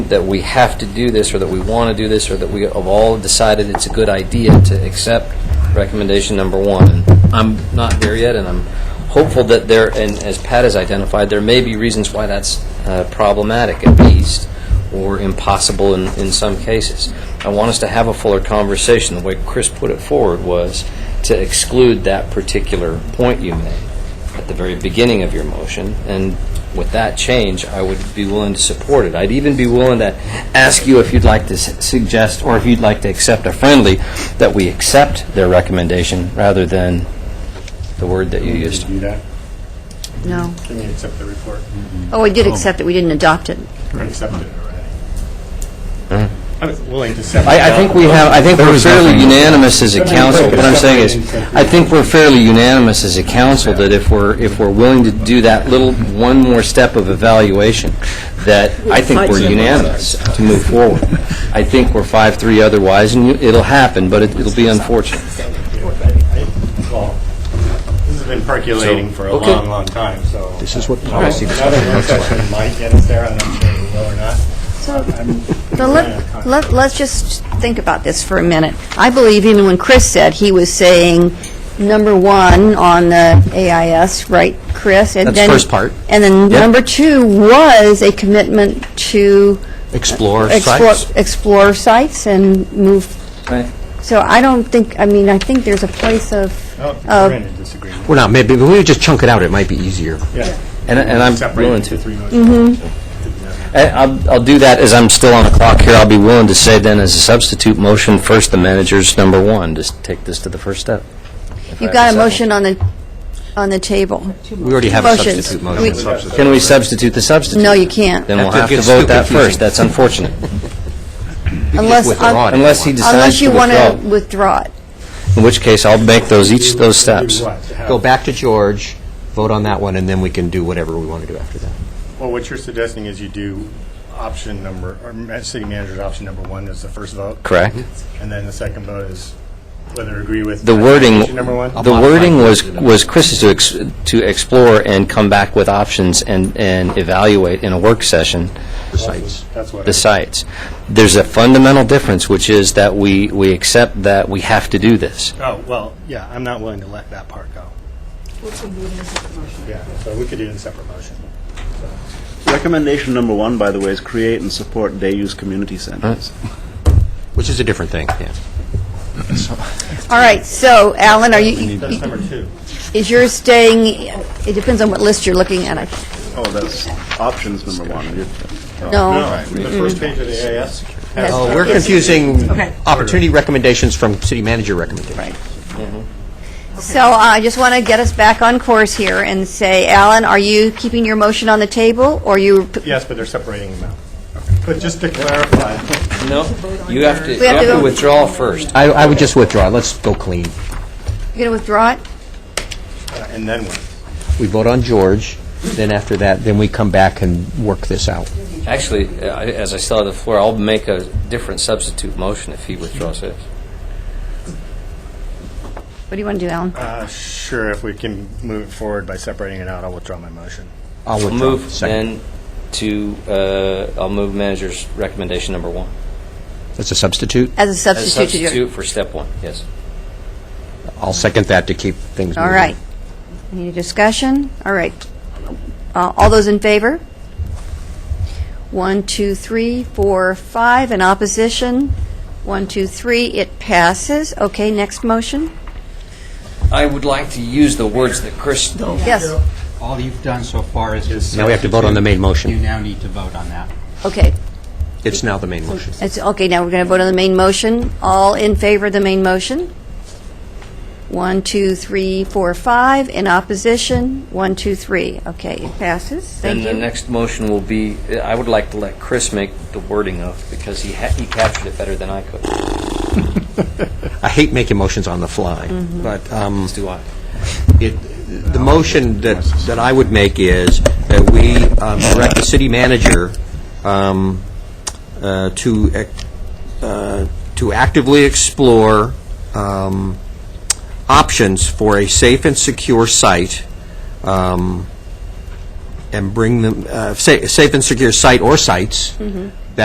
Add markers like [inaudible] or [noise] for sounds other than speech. that we have to do this, or that we want to do this, or that we have all decided it's a good idea to accept recommendation number one. And I'm not there yet, and I'm hopeful that there, and as Pat has identified, there may be reasons why that's uh, problematic at least, or impossible in, in some cases. I want us to have a fuller conversation. The way Chris put it forward was to exclude that particular point you made at the very beginning of your motion, and with that change, I would be willing to support it. I'd even be willing to ask you if you'd like to s- suggest, or if you'd like to accept a friendly, that we accept their recommendation rather than the word that you used. Do that? No. Can we accept the report? Mm-hmm. Oh, we did accept it, we didn't adopt it. Accept it. I'm willing to accept. I, I think we have, I think we're fairly unanimous as a council, what I'm saying is, I think we're fairly unanimous as a council that if we're, if we're willing to do that little, one more step of evaluation, that I think we're unanimous to move forward. I think we're five-three otherwise, and you- it'll happen, but it- it'll be unfortunate. Well, This has been percolating So, for a okay. long, long time, so. This is what You know, policy Another work session might get us there, I'm not sure we will [laughs] or not. So, I'm- but Yeah. let, let, let's just think about this for a minute. I believe even when Chris said, he was saying number one on the AIS, right, Chris? And That's then- first part. And then Yeah. number two was a commitment to. Explore explore- sites. Explore sites and move, so I don't think, I mean, I think there's a place of, Oh, of We're in a disagreement. We're not, maybe, we just chunk it out, it might be easier. Yeah. And, and I'm Separate willing into to. three motions. Yeah. I- I'll, I'll do that as I'm still on the clock here. I'll be willing to say then, as a substitute motion, first, the manager's number one, just take this to the first step. You've got a motion on the, on the table. We already have a Motions. substitute We- motion. Substitute. Can we substitute the substitute? No, you can't. Then we'll That have to gets vote too that confusing. first. That's unfortunate. Unless, withdraw it. Unless he decides unless to you want withdraw. to withdraw it. In which case, I'll make those, each those steps. Do what? To have- Go back to George, vote on that one, and then we can do whatever we want to do after that. Well, what you're suggesting is you do option number, or ma- city manager's option number one is the first vote. Correct. And then the second vote is whether to agree with. The wording, option Number one? the wording was, was Chris's to, ex- to explore and come back with options and, and evaluate in a work session Sites. That's what. the sites. There's a fundamental difference, which is that we, we accept that we have to do this. Oh, well, yeah, I'm not willing to let that part go. Yeah, so we could do it in separate motion. Recommendation number one, by the way, is create and support day-use community centers. Which is a different thing, yeah. All right, so Alan, are you, That's number two. is yours staying, it depends on what list you're looking at. I- Oh, that's options number one. You're- No, The first page of the AIS. has- Oh, we're confusing opportunity recommendations from city manager recommendations. Right. so uh, I just want to get us back on course here and say, Alan, are you keeping your motion on the table, or you, Yes, but they're separating them out. But just to clarify, No, you have to, you We have to have to go- withdraw first. I, I would just withdraw, let's go clean. you're going to withdraw it? uh, and then what? We vote on George, then after that, then we come back and work this out. Actually, I- as I still have the floor, I'll make a different substitute motion if he withdraws his. What do you want to do, Alan? Uh, Sure, if we can move it forward by separating it out, I'll withdraw my motion. I'll I'll withdraw. move Second. then to, uh, I'll move manager's recommendation number one. That's a substitute, As As a a substitute to your... substitute for step one, yes. I'll second that to keep things moving. All right. Any discussion? All right. Uh, All those in favor? One, two, three, four, five. In opposition? One, two, three. It passes. Okay, next motion? I would like to use the words that Chris Yes. All you've done so far is just... Now we have to vote on the main motion. You now need to vote on that. Okay. It's now the main motion. It's, okay, now we're going to vote on the main motion. All in favor of the main motion? One, two, three, four, five. In opposition? One, two, three. Okay, it passes. Thank And you. the next motion will be, I would like to let Chris make the wording of, because he ha- he captured it better than I could. I hate making motions on the fly, Mm-hmm. but um, Do I? it- the motion that that I would make is that we um, direct the city manager um, uh, to ac- uh, to actively explore um, options for a safe and secure site um, and bring them, uh, sa- safe and secure site or sites